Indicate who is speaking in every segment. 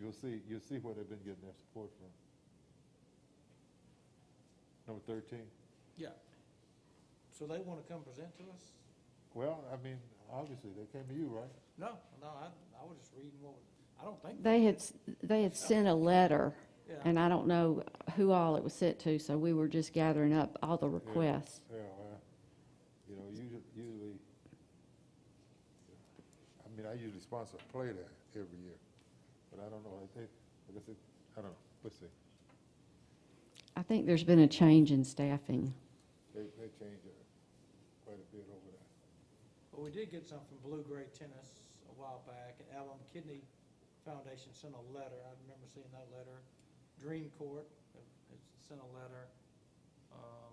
Speaker 1: you'll see, you'll see where they've been getting their support from. Number thirteen.
Speaker 2: Yeah. So they want to come present to us?
Speaker 1: Well, I mean, obviously, they came to you, right?
Speaker 2: No, no, I, I was just reading what, was- I don't think.
Speaker 3: They had, s- they had sent a letter,
Speaker 2: Yeah.
Speaker 3: and I don't know who all it was sent to, so we were just gathering up all the requests.
Speaker 1: Yeah, well, you know, usually, usually, I mean, I usually sponsor a play there every year, but I don't know, I think, I guess it, I don't know, let's see.
Speaker 3: I think there's been a change in staffing.
Speaker 1: They, they change it quite a bit over there.
Speaker 2: But we did get some from Blue Gray Tennis a while back, and Alum Kidney Foundation sent a letter, I remember seeing that letter. Dream Court has sent a letter. um,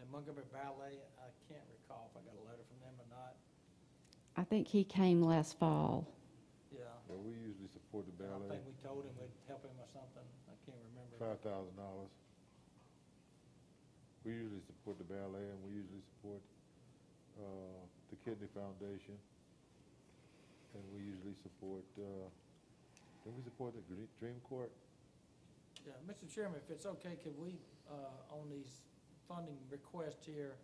Speaker 2: And Montgomery Ballet, I can't recall if I got a letter from them or not,
Speaker 3: I think he came last fall.
Speaker 2: yeah.
Speaker 1: But we usually support the
Speaker 2: I
Speaker 1: ballet,
Speaker 2: think we told him we'd help him or something, I can't remember.
Speaker 1: five thousand dollars. We usually support the ballet and we usually support, uh, the Kidney Foundation. And we usually support, uh, did we support the Gre- Dream Court?
Speaker 2: Yeah, Mr. Chairman, if it's okay, could we, uh, on these funding requests here,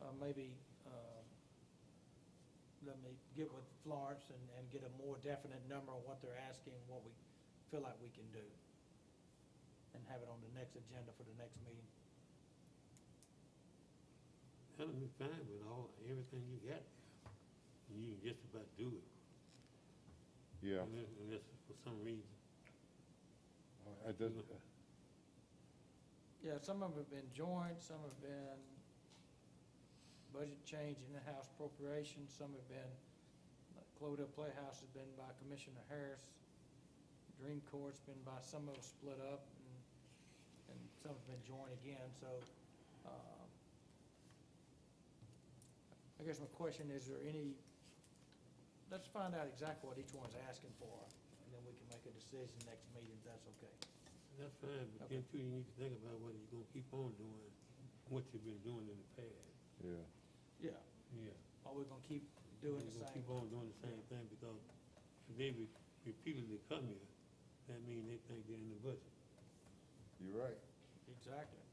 Speaker 2: uh, maybe, uh, let me get with Florence and, and get a more definite number on what they're asking, what we feel like we can do? And have it on the next agenda for the next meeting.
Speaker 4: That'll be fine with all, everything you got. You can just about do it.
Speaker 1: Yeah.
Speaker 4: Unless, unless for some reason,
Speaker 1: Uh, I just,
Speaker 2: Yeah, some of them have been joint, some have been budget change in the house appropriation, some have been, like Clodagh Playhouse has been by Commissioner Harris. Dream Court's been by, some of them split up, and, and some have been joined again, so, um, I guess my question, is there any, let's find out exactly what each one's asking for, and then we can make a decision next meeting, if that's okay.
Speaker 4: that's fine, but then too, you need to think about whether you're gonna keep on doing what you've been doing in the past.
Speaker 1: yeah.
Speaker 2: Yeah.
Speaker 4: Yeah.
Speaker 2: Are we gonna keep doing the
Speaker 4: You're gonna
Speaker 2: same?
Speaker 4: Keep on doing the same thing because if they re- repeatedly come here, that means they think they're in the budget.
Speaker 1: You're right.
Speaker 2: Exactly.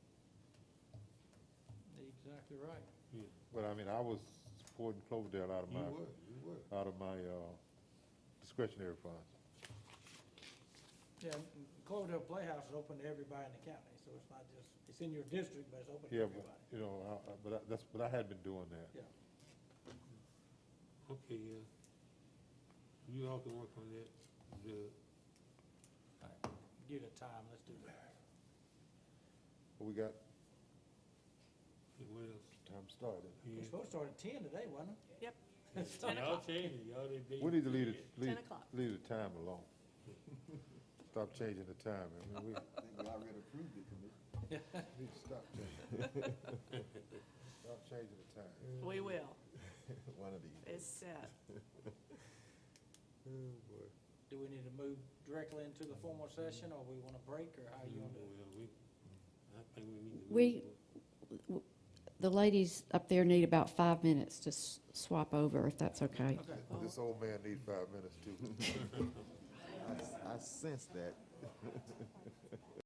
Speaker 2: Exactly right.
Speaker 4: Yeah.
Speaker 1: But I mean, I was supporting Cloverdale out of
Speaker 4: You
Speaker 1: my,
Speaker 4: were, you were.
Speaker 1: out of my uh, discretionary funds.
Speaker 2: Yeah, and Cloverdale Playhouse is open to everybody in the county, so it's not just, it's in your district, but it's open to
Speaker 1: Yeah, but,
Speaker 2: everybody.
Speaker 1: you know, I- I- but I- that's, but I had been doing that.
Speaker 2: Yeah,
Speaker 4: Okay, yeah. You all can work on that, the,
Speaker 2: give it time, let's do that.
Speaker 1: We got
Speaker 4: what else?
Speaker 1: time started.
Speaker 2: We're
Speaker 4: Yeah.
Speaker 2: supposed to start at ten today, wasn't it?
Speaker 5: Yep.
Speaker 2: It's
Speaker 5: Ten
Speaker 4: Y'all
Speaker 5: o'clock.
Speaker 4: changing, y'all they- they-
Speaker 1: We need to leave, it- leave,
Speaker 5: 10 o'clock.
Speaker 1: leave the time alone. Stop changing the time. I mean, we
Speaker 6: I think we already approved it, Commissioner.
Speaker 1: need to stop changing. Stop changing the time.
Speaker 5: We will.
Speaker 1: One of these.
Speaker 5: It's set.
Speaker 1: Oh, boy.
Speaker 2: Do we need to move directly into the formal session, or we want a break, or how you
Speaker 4: Mm,
Speaker 2: want to?
Speaker 4: well, we- I think we need to.
Speaker 3: We-
Speaker 4: leave.
Speaker 3: The ladies up there need about five minutes to s- swap over, if that's okay.
Speaker 2: Okay.
Speaker 1: This old man needs five minutes too.
Speaker 6: I, I sense that.